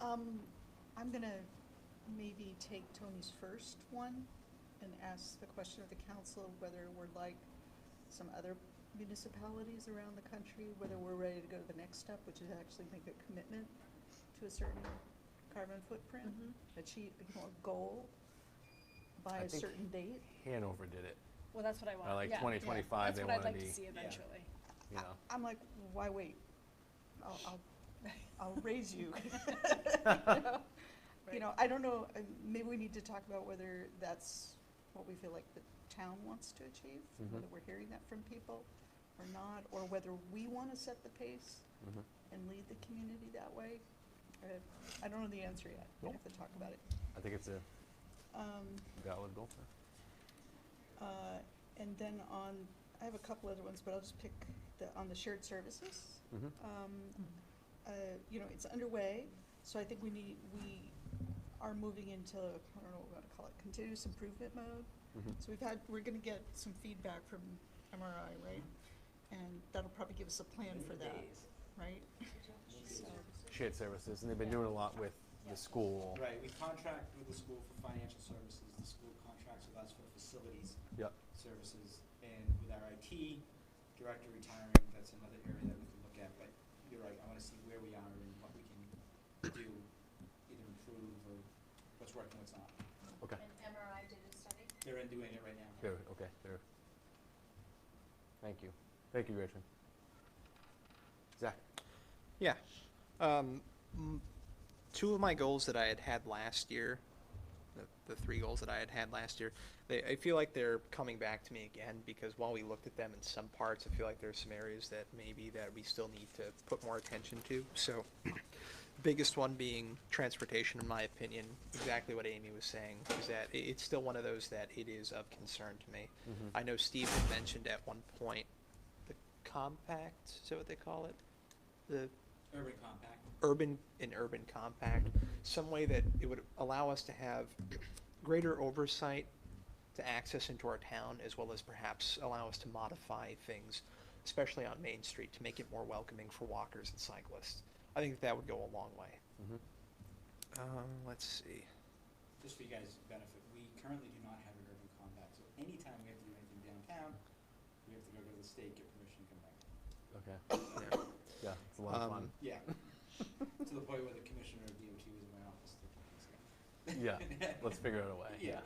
Um, I'm gonna maybe take Tony's first one and ask the question of the council whether we're like some other municipalities around the country, whether we're ready to go to the next step, which is actually make a commitment to a certain carbon footprint, achieve, you know, a goal by I a think- certain date. Hanover did it. Well, that's what I want. By like yeah. twenty twenty-five, That's they what I'd wanna like to be, see eventually. you I- know, I'm like, why wait? I'll, I'll, I'll raise you. You Right. know, I don't know, uh, maybe we need to talk about whether that's what we feel like the town wants to achieve, Mhm. whether we're hearing that from people or not, or whether we want to set the pace Mm-hmm. Mhm. and lead the community that way. Uh, I don't know the answer yet, we have to talk about it. I think it's a Um, valid goal. uh, And then on, I have a couple other ones, but I'll just pick the, on the shared services. Mm-hmm. Mhm. Um, uh, You know, it's underway, so I think we need, we are moving into, I don't know what to call it, continuous improvement mode. Mm-hmm. Mhm. So we've had, we're gonna get some feedback from MRI, right? And that'll probably give us a plan for that, right? So, Shared services, and they've been doing a lot with the school. Right, we contract with the school for financial services, the school contracts with us for facilities Yep. services, and with our IT director retiring, that's another area that we can look at, but you're right, I wanna see where we are and what we can do, either improve or what's working, what's not. Okay. And MRI did a study? They're in doing it right now. There, okay, there. Thank you. Thank you, Gretchen. Zach? Yeah. Um, m- two of my goals that I had had last year, the, the three goals that I had had last year, they, I feel like they're coming back to me again because while we looked at them in some parts, I feel like there's some areas that maybe that we still need to put more attention to. So, biggest one being transportation, in my opinion, exactly what Amy was saying, is that it, it's still one of those that it is of concern to me. Mhm. I know Steve had mentioned at one point the compact, is that what they call it? The Urban compact, urban and urban compact, some way that it would allow us to have greater oversight to access into our town, as well as perhaps allow us to modify things, especially on Main Street, to make it more welcoming for walkers and cyclists. I think that would go a long way. Mhm. Um, let's see. just for you guys' benefit, we currently do not have an urban compact, so anytime we have to do anything downtown, we have to go to the state, get permission, come back. Okay. Yeah. Yeah, it's a lot of fun. Um, Yeah, to the point where the commissioner of DOT was in my office a couple weeks ago. Yeah, let's figure out a way. Yeah.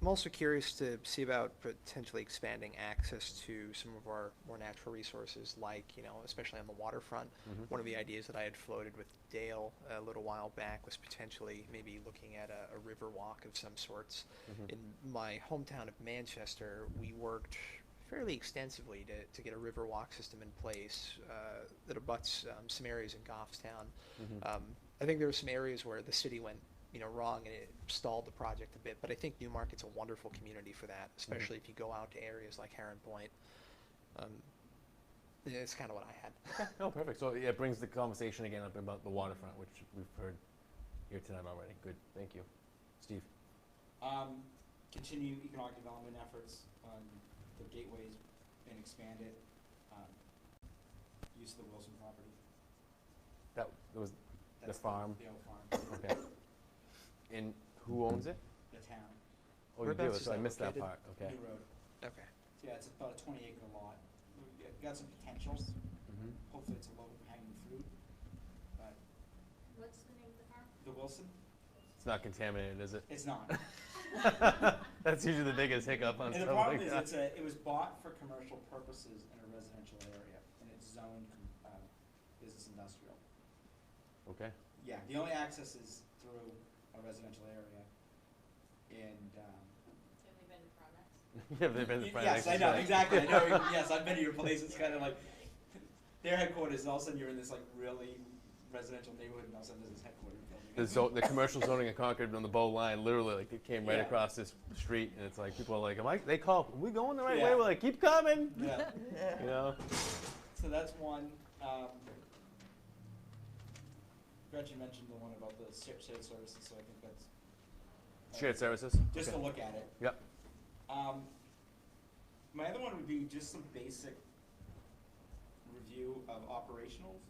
I'm also curious to see about potentially expanding access to some of our more natural resources, like, you know, especially on the waterfront. Mhm. One of the ideas that I had floated with Dale a little while back was potentially maybe looking at a, a river walk of some sorts. Mhm. In my hometown of Manchester, we worked fairly extensively to, to get a river walk system in place uh, that abuts um, some areas in Goffstown. Mhm. Um, I think there were some areas where the city went, you know, wrong and it stalled the project a bit, but I think Newmarket's a wonderful community for that, especially if you go out to areas like Heron Point. Um, yeah, it's kind of what I had. No, Oh, perfect. So yeah, it brings the conversation again up about the waterfront, which we've heard here tonight already. Good, thank you. Steve? Um, continue economic development efforts on the gateways and expand it, um, use of the Wilson property. That was, The That's farm. The old farm, okay. And who owns it? the town, Oh, you do, Whereabouts is so I that missed that located? part, okay. New Road. okay. Yeah, it's about a twenty acre lot. We've got- got some potential. Mm-hmm. Mhm. Hopefully it's a low hanging fruit. But What's the name of the farm? the Wilson, It's not contaminated, is it? it's not. That's usually the biggest hiccup on And the something problem like is, that. it's a, it was bought for commercial purposes in a residential area, and it's zoned, com- uh, business industrial. Okay, Yeah, the only access is through a residential area, and, um. Have they been products? yeah, they've been in y- front of Yes, I Nexus know, Bank. exactly, I know, yes, I've been to your place, it's kinda like, their headquarters, all of a sudden you're in this like really residential neighborhood, and all of a sudden there's this headquarters building. The, zo- the commercial zoning in Concord on the bow line, literally, like it came right Yeah. across this street, and it's like people are like, "Am I?" They call, "Are we going the right way?" Yeah. We're like, "Keep coming," Yeah, you know. so that's one, um. Gretchen mentioned the one about the shared shared services, so I think that's. uh, Shared services. Just to Okay. look at it. Yep. Um, my other one would be just some basic review of operational